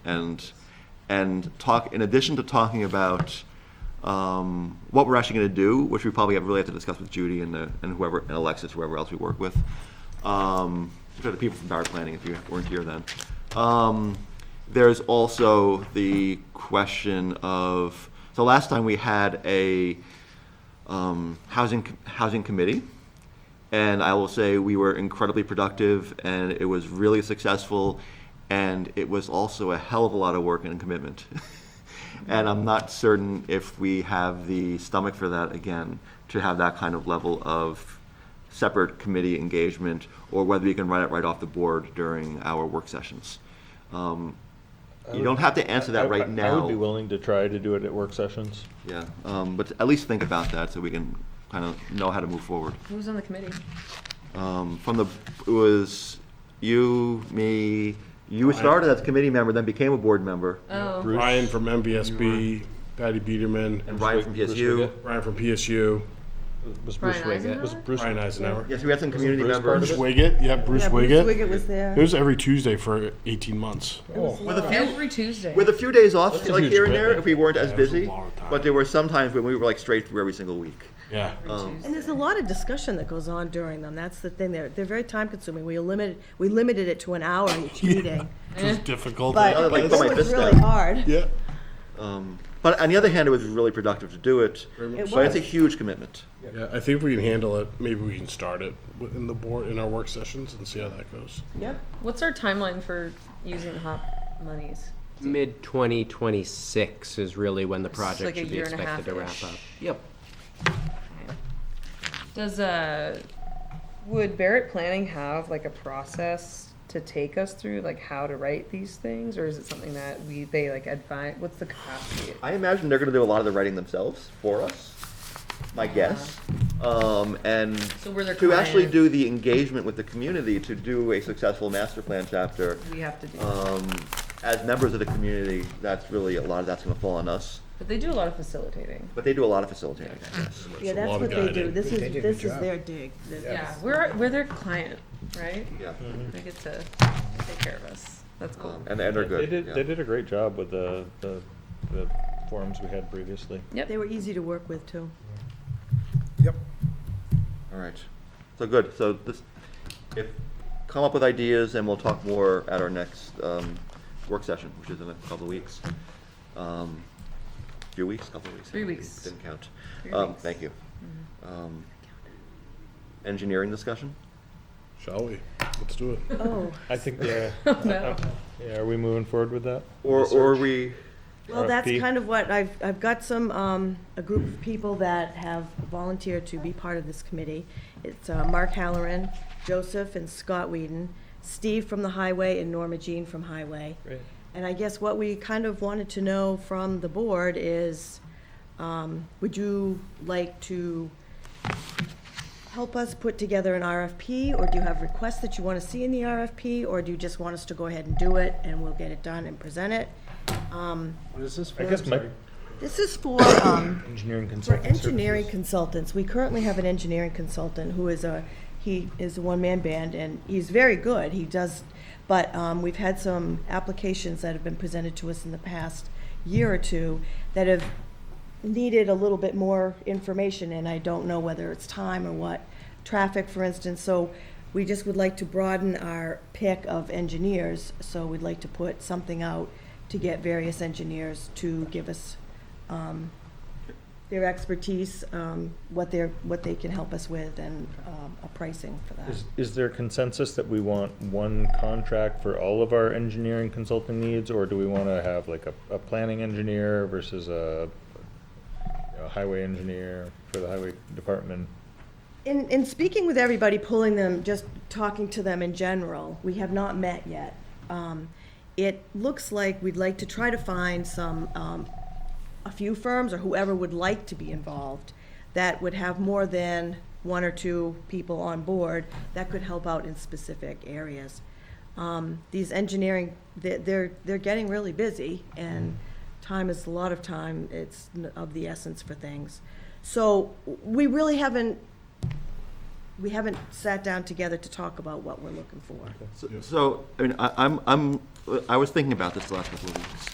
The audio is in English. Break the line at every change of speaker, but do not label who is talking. and and talk in addition to talking about um, what we're actually going to do, which we probably have really have to discuss with Judy and, the, and whoever and Alexis, whoever else we work with, um, which are the people from Power Planning. If you weren't here then, um, there's also the question of so last time we had a um, housing housing committee, and I will say we were incredibly productive, and it was really successful, and it was also a hell of a lot of work and commitment. and I'm not certain if we have the stomach for that again to have that kind of level of separate committee engagement, or whether we can run it right off the board during our work sessions. Um, you don't have to answer that
I-
right
I-
now.
I would be willing to try to do it at work sessions.
Yeah, um, but at least think about that so we can kind of know how to move forward.
Who was on the committee?
Um, from the, it was you, me, you started as a committee member, then became a board member,
Oh,
Bruce?
Ryan from MBSB, Patty Biederman,
and Ryan from
Bruce
PSU.
Wiggett?
Ryan from PSU,
Was Bruce
Brian
Wiggett? Was
Eisenhower?
Bruce?
Ryan Eisenhower.
Yes, we had some community
Bruce part of
members.
it?
Wiggett, yeah, Bruce
Yeah,
Wiggett.
Wiggett was there.
It was every Tuesday for 18 months.
With a few,
every Tuesday.
with a few days off,
That's a
like
huge
here and there,
commitment.
if we weren't as
Yeah, that's a
busy.
long time.
But there were some times when we were like straight through every single week.
Yeah.
Um,
And there's a lot of discussion that goes on during them. That's the thing. They're, they're very time consuming. We limited, we limited it to an hour each meeting.
It was difficult.
I
But
like
it
put my
was
fist
really
down.
hard.
yeah.
But on the other hand, it was really productive to do it.
much
But it's a
so.
huge commitment.
yeah. I think if we can handle it. Maybe we can start it in the board in our work sessions and see how that goes.
Yep.
What's our timeline for using the hop monies?
Mid 2026 is really when the
is
project
like a
should be
year and a
expected to wrap
half-ish.
up. Yep.
Does uh, would Barrett Planning have like a process to take us through, like how to write these things, or is it something that we they like advise? What's the capacity?
I imagine they're going to do a lot of the writing themselves for us, my guess. Um, and
So we're their
to actually
client.
do the engagement with the community to do a successful master plan chapter
We have to do,
um, as members of the community, that's really a lot of that's going to fall on us.
but they do a lot of facilitating.
But they do a lot of facilitating. I guess.
Yeah,
lot
that's
of
what they do.
guiding.
This is,
They did a
this
good
is
job.
their dig. This-
Yeah, we're we're their client, right?
Mm-hmm.
Yeah,
They get to take care of us. That's cool.
um, and, and they're
They
good.
did,
yeah.
they did a great job with the, the, the forums we had previously.
They were easy to work with, too.
Yep.
All right. So good. So this, if come up with ideas, and we'll talk more at our next um, work session, which is in a couple of weeks. Um, few weeks, couple of weeks.
Three weeks.
Didn't count.
Three
Um,
weeks. Mm-hmm.
thank you. Um, engineering discussion.
Shall we? Let's do it.
Oh,
I think, yeah. Uh,
No.
Yeah, are we moving forward with that?
Or or we.
well, that's
RFP.
kind of what, I've, I've got some, um, a group of people that have volunteered to be part of this committee. It's uh, Mark Halloran, Joseph and Scott Whedon, Steve from the Highway, and Norma Jean from Highway.
Great.
And I guess what we kind of wanted to know from the board is, um, would you like to help us put together an RFP? Or do you have requests that you want to see in the RFP? Or do you just want us to go ahead and do it and we'll get it done and present it? Um,
What is this for?
I guess
I'm
my
sorry.
This is for, um,
engineering
for
consulting
engineering consultants, we currently have an engineering consultant who is a, he is a one-man band, and he's very good, he does, but um, we've had some applications that have been presented to us in the past year or two that have needed a little bit more information, and I don't know whether it's time or what. Traffic, for instance, so we just would like to broaden our pick of engineers, so we'd like to put something out to get various engineers to give us um, their expertise, um, what they're, what they can help us with, and um, a pricing for that.
Is, is there consensus that we want one contract for all of our engineering consulting needs, or do we want to have like a, a planning engineer versus a, you know, highway engineer for the highway department?
In, in speaking with everybody, pulling them, just talking to them in general, we have not met yet. Um, It looks like we'd like to try to find some, um, a few firms or whoever would like to be involved that would have more than one or two people on board that could help out in specific areas. Um, These engineering, they're- they're, they're getting really busy and time is a lot of time. It's n- of the essence for things. So w- we really haven't we haven't sat down together to talk about what we're looking for.
So- So, I mean, I, I'm, I'm, I was thinking about this the last couple of weeks.